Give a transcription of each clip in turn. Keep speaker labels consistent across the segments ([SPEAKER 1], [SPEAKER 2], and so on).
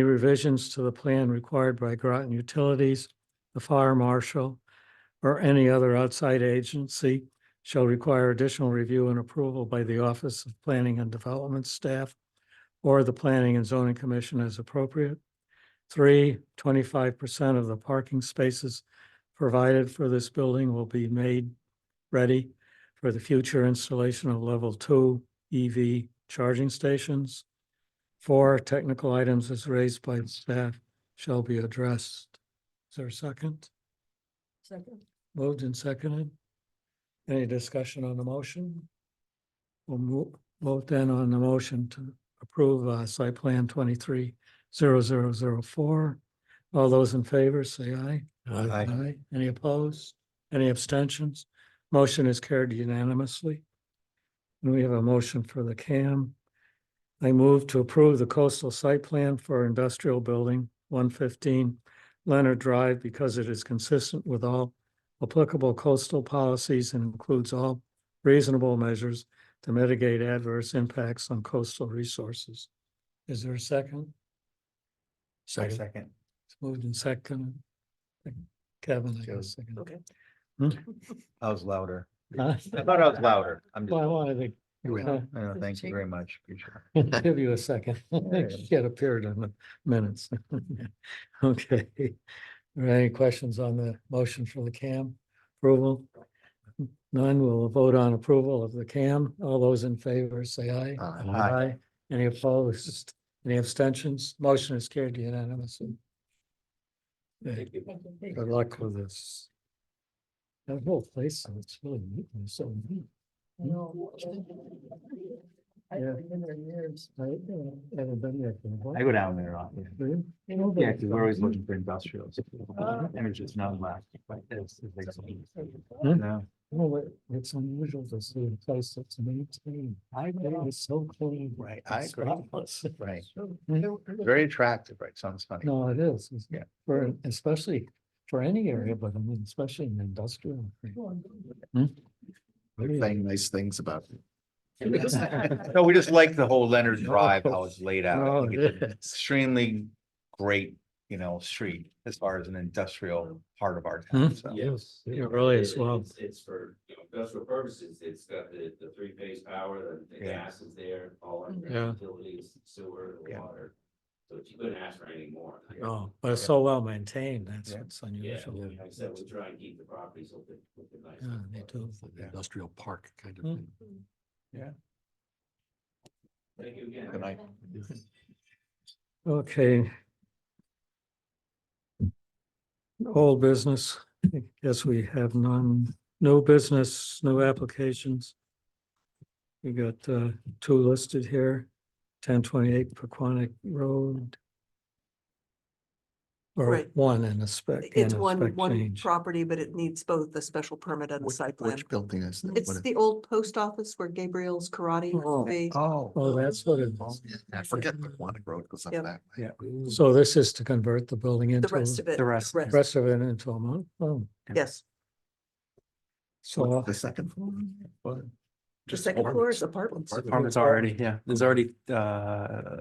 [SPEAKER 1] Any revisions to the plan required by Groton Utilities, the fire marshal, or any other outside agency shall require additional review and approval by the Office of Planning and Development staff or the Planning and Zoning Commission as appropriate. Three, 25 percent of the parking spaces provided for this building will be made ready for the future installation of level two EV charging stations. Four, technical items as raised by staff shall be addressed. Is there a second?
[SPEAKER 2] Second.
[SPEAKER 1] Moved and seconded. Any discussion on the motion? We'll move, vote then on the motion to approve uh site plan twenty-three zero zero zero four. All those in favor, say aye.
[SPEAKER 3] Aye.
[SPEAKER 1] Aye. Any opposed? Any abstentions? Motion is carried unanimously. And we have a motion for the CAM. I move to approve the coastal site plan for industrial building one fifteen Leonard Drive because it is consistent with all applicable coastal policies and includes all reasonable measures to mitigate adverse impacts on coastal resources. Is there a second?
[SPEAKER 3] I Second.
[SPEAKER 1] It's moved and second. Kevin, I
[SPEAKER 3] Joe.
[SPEAKER 1] guess. second.
[SPEAKER 2] Okay.
[SPEAKER 3] I was louder.
[SPEAKER 1] Huh?
[SPEAKER 3] I thought I was louder. I'm just.
[SPEAKER 1] Well, I wanted to
[SPEAKER 3] You win.
[SPEAKER 1] uh,
[SPEAKER 3] I know, Thank you very much. Appreciate it.
[SPEAKER 1] Give you a second. She had appeared in the minutes. Okay. Are there any questions on the motion for the CAM approval? None. We'll vote on approval of the CAM. All those in favor, say aye.
[SPEAKER 3] Aye. Aye.
[SPEAKER 1] Any opposed? Any abstentions? Motion is carried unanimously. Okay, Good luck with this. That whole place, it's really neat and so neat. Yeah.
[SPEAKER 2] I've been there years.
[SPEAKER 1] I uh, haven't been there for a
[SPEAKER 3] I
[SPEAKER 1] while.
[SPEAKER 3] go down there. often.
[SPEAKER 1] Really?
[SPEAKER 3] Yeah, because we're always looking for industrials.
[SPEAKER 2] Ah.
[SPEAKER 3] And it's just not left. like this, it's like something-
[SPEAKER 1] Hmm?
[SPEAKER 3] No.
[SPEAKER 1] No, it- it's unusual to see a place that's maintained.
[SPEAKER 3] I
[SPEAKER 1] It
[SPEAKER 3] know.
[SPEAKER 1] is so clean.
[SPEAKER 3] Right,
[SPEAKER 1] and
[SPEAKER 3] I agree.
[SPEAKER 1] spotless. Mm-hmm.
[SPEAKER 3] Right.
[SPEAKER 2] Very.
[SPEAKER 3] Very attractive, right? Sounds funny.
[SPEAKER 1] No, it is. it's-
[SPEAKER 3] Yeah.
[SPEAKER 1] For, especially for any area, but I mean, especially in industrial. Hmm?
[SPEAKER 4] They're saying nice things about it.
[SPEAKER 3] No, we just like the whole Leonard Drive, how it's laid out. I
[SPEAKER 1] Oh,
[SPEAKER 3] think
[SPEAKER 1] it
[SPEAKER 3] it's an
[SPEAKER 1] is.
[SPEAKER 3] Extremely great, you know, street as far as an industrial part of our
[SPEAKER 1] Hmm?
[SPEAKER 3] town. So
[SPEAKER 1] Yes. It really
[SPEAKER 5] It-
[SPEAKER 1] is well.
[SPEAKER 5] it's- It's for, you know, industrial purposes, it's got the, the three-phase power, the, the
[SPEAKER 3] Yeah.
[SPEAKER 5] gas is there, all our
[SPEAKER 1] Yeah.
[SPEAKER 5] utilities, sewer, the
[SPEAKER 3] Yeah.
[SPEAKER 5] water. So you couldn't ask for any more.
[SPEAKER 1] Oh, but it's so well maintained. That's
[SPEAKER 3] Yeah.
[SPEAKER 1] what's
[SPEAKER 5] Yeah,
[SPEAKER 1] unusual.
[SPEAKER 5] like I said, we try and keep the properties open, open nice.
[SPEAKER 1] Yeah, they do.
[SPEAKER 4] It's like an
[SPEAKER 3] Yeah.
[SPEAKER 4] Industrial park kind of
[SPEAKER 1] Hmm.
[SPEAKER 4] thing.
[SPEAKER 5] Thank you again.
[SPEAKER 3] good night.
[SPEAKER 1] Okay. Old business, I guess we have none, no business, no applications. We got uh two listed here, ten twenty-eight Paquonic Road. Or
[SPEAKER 6] Right.
[SPEAKER 1] one in a spec. and
[SPEAKER 6] It's
[SPEAKER 1] a
[SPEAKER 6] one,
[SPEAKER 1] spec
[SPEAKER 6] one
[SPEAKER 1] change.
[SPEAKER 6] property, but it needs both a special permit and a
[SPEAKER 4] Which-
[SPEAKER 6] site plan.
[SPEAKER 4] Which building is? that? What
[SPEAKER 6] It's
[SPEAKER 4] is-
[SPEAKER 6] the old post office where Gabriel's karate used
[SPEAKER 1] Oh.
[SPEAKER 6] to be.
[SPEAKER 1] Oh,
[SPEAKER 4] Oh.
[SPEAKER 1] that's what it
[SPEAKER 4] oh,
[SPEAKER 1] is.
[SPEAKER 4] yeah, I forget the Quantic Road goes up
[SPEAKER 6] Yep.
[SPEAKER 4] that. way.
[SPEAKER 3] Yeah.
[SPEAKER 1] So this is to convert the building
[SPEAKER 6] The
[SPEAKER 1] into,
[SPEAKER 6] rest of it.
[SPEAKER 3] the rest,
[SPEAKER 1] the rest of it into a month. Oh,
[SPEAKER 6] Yes.
[SPEAKER 1] so oh,
[SPEAKER 4] The second floor?
[SPEAKER 6] The second floor is apartments.
[SPEAKER 7] Apartments already, yeah. There's already uh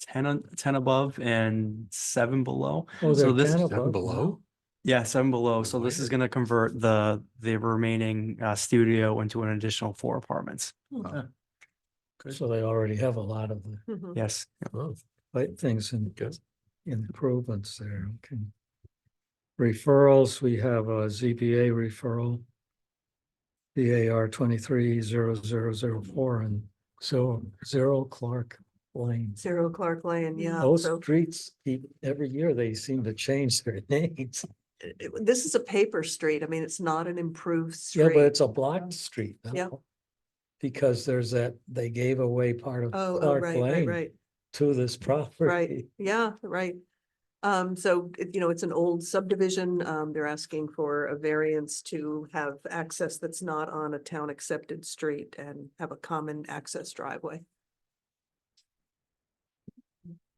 [SPEAKER 7] ten on, ten above and seven below.
[SPEAKER 1] oh,
[SPEAKER 7] So
[SPEAKER 1] they're
[SPEAKER 7] this-
[SPEAKER 1] down
[SPEAKER 4] Down
[SPEAKER 1] above
[SPEAKER 4] below?
[SPEAKER 7] Yeah, seven below. So this is gonna convert the the remaining uh studio into an additional four apartments.
[SPEAKER 1] now. Oh, So they already have a lot of the
[SPEAKER 6] Mhm.
[SPEAKER 7] Yes.
[SPEAKER 4] Oh,
[SPEAKER 1] like things and improvements there, okay. Referrals, we have a ZBA referral. BAR twenty-three zero zero zero four and so zero Clark Lane.
[SPEAKER 6] Zero Mm-hmm. Clark Lane, yeah.
[SPEAKER 1] Those
[SPEAKER 6] So
[SPEAKER 1] streets, keep- every year they seem to change their names.
[SPEAKER 6] it- it- this is a paper street. I mean, it's not an improved
[SPEAKER 1] Yeah, but
[SPEAKER 6] street.
[SPEAKER 1] it's a blocked street now.
[SPEAKER 6] Yeah.
[SPEAKER 1] Because there's that, they gave away part of
[SPEAKER 6] Oh, oh,
[SPEAKER 1] Clark
[SPEAKER 6] right, right,
[SPEAKER 1] Lane
[SPEAKER 6] right,
[SPEAKER 1] to this property.
[SPEAKER 6] right. Yeah, right. Um, so, it- you know, it's an old subdivision. Um, they're asking for a variance to have access that's not on a town accepted street and have a common access driveway.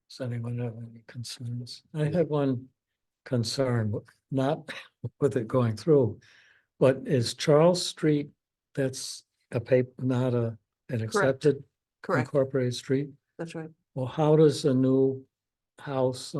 [SPEAKER 1] Does anyone have any concerns? I had one concern, w- not with it going through. But is Charles Street, that's a paper, not a, an accepted
[SPEAKER 6] Correct,
[SPEAKER 1] incorporated street?
[SPEAKER 6] that's right.
[SPEAKER 1] Well, how does the new house